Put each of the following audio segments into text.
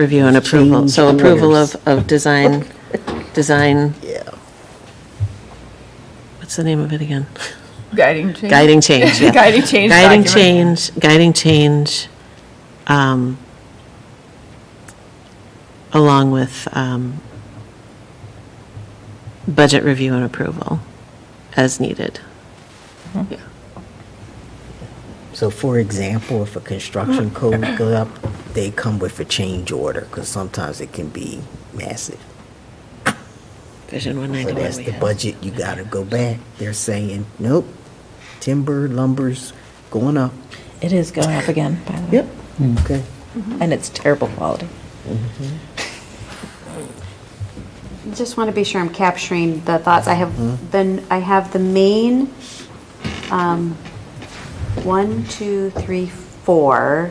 Review and approval, so Change approval orders. of, of design, design. Yeah. What's the name of it again? Guiding change. Guiding change, yeah. Guiding change Guiding document. change, guiding change, um, along with, um, budget review and approval as needed. So for example, if a Mm. construction code goes up, they come with a change order, because sometimes it can be massive. Vision one So ninety-one that's we the have. budget, you gotta go back. They're saying, nope, timber, lumber's going up. It is going up again, by the way. Yep. Okay. And it's terrible quality. Just want to be sure I'm capturing the thoughts. I have then, I have the main, um, one, two, three, four.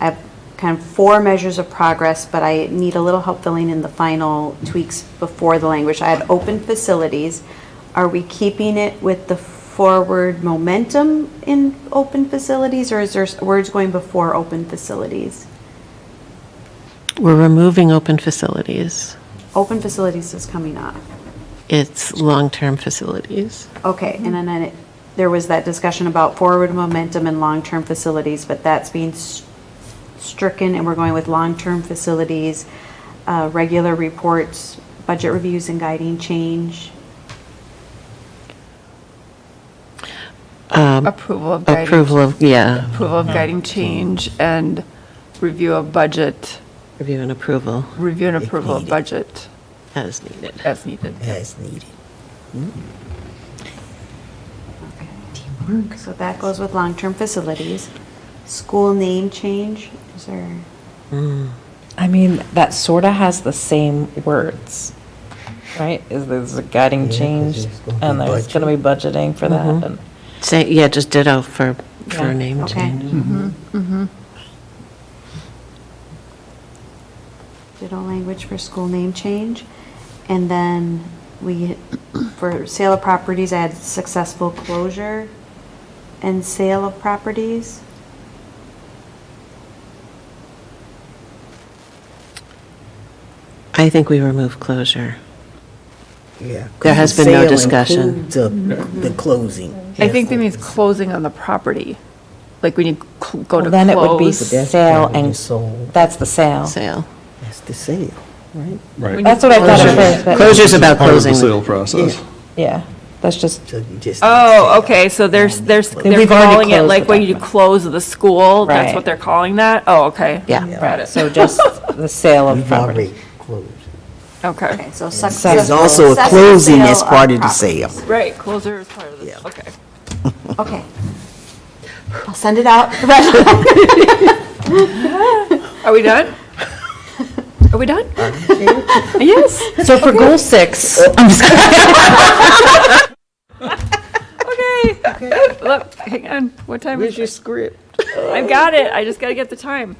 I have kind of four measures of progress, but I need a little help filling in the final tweaks before the language. I had open facilities. Are we keeping it with the forward momentum in open facilities, or is there s- words going before open facilities? We're removing open facilities. Open facilities is coming up. It's long-term facilities. Okay, and then it- there was that discussion about forward momentum and long-term facilities, but that's being s- stricken, and we're going with long-term facilities, uh, regular reports, budget reviews and guiding change. Approval of guiding. Um, Approval of, yeah, Approval of guiding change and review of budget, review and approval review and approval of needed. budget as needed. as needed. As needed. So that goes with long-term facilities. School name change, is there, I mean, that sort of has the same words, right? Is there's a guiding Yeah, 'cause change, there's gonna be and there's going to be budgeting for that, and Say, yeah, just ditto for, for Yeah. name Okay. change. Mm-hmm. ditto language for school name change? And then we, for sale of properties, I had successful closure and sale of properties. I think we remove closure. Yeah. 'cause There has the been no sale discussion. includes a- The closing. I think that means closing on the property, like when you cl- go Well, to then it would be close. But that's sale probably and, sold. that's the sale. Sale. That's the sale, right? Right. That's what I thought Closure. at first, but, Closure's about Part of the closing. sale process. yeah, that's just, So you just. Oh, okay, so there's, there's, they're We've already calling it closed like the when you document. close the school, that's Right. what they're calling that? Oh, okay. Yeah. Got it. so just the sale of You've property. already closed. Okay. Okay, so successful. There's also a closing sale as part of the property. sale. Right, closer is part of this, okay. Okay. I'll send it out. Are we done? Are we done? Yes. So for goal six, Okay. Look, hang on. What time is it? script? I've got it. I just gotta get the time.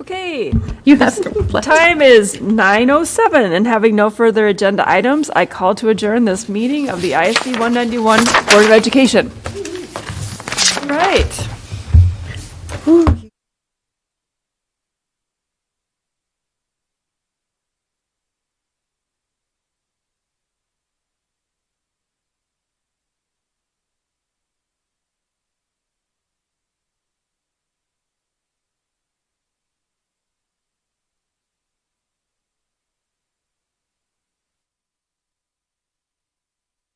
Okay. You have to. Time is 9:07, and having no further agenda items, I call to adjourn this meeting of the ISD 191 Board of Education. All Right. Whew.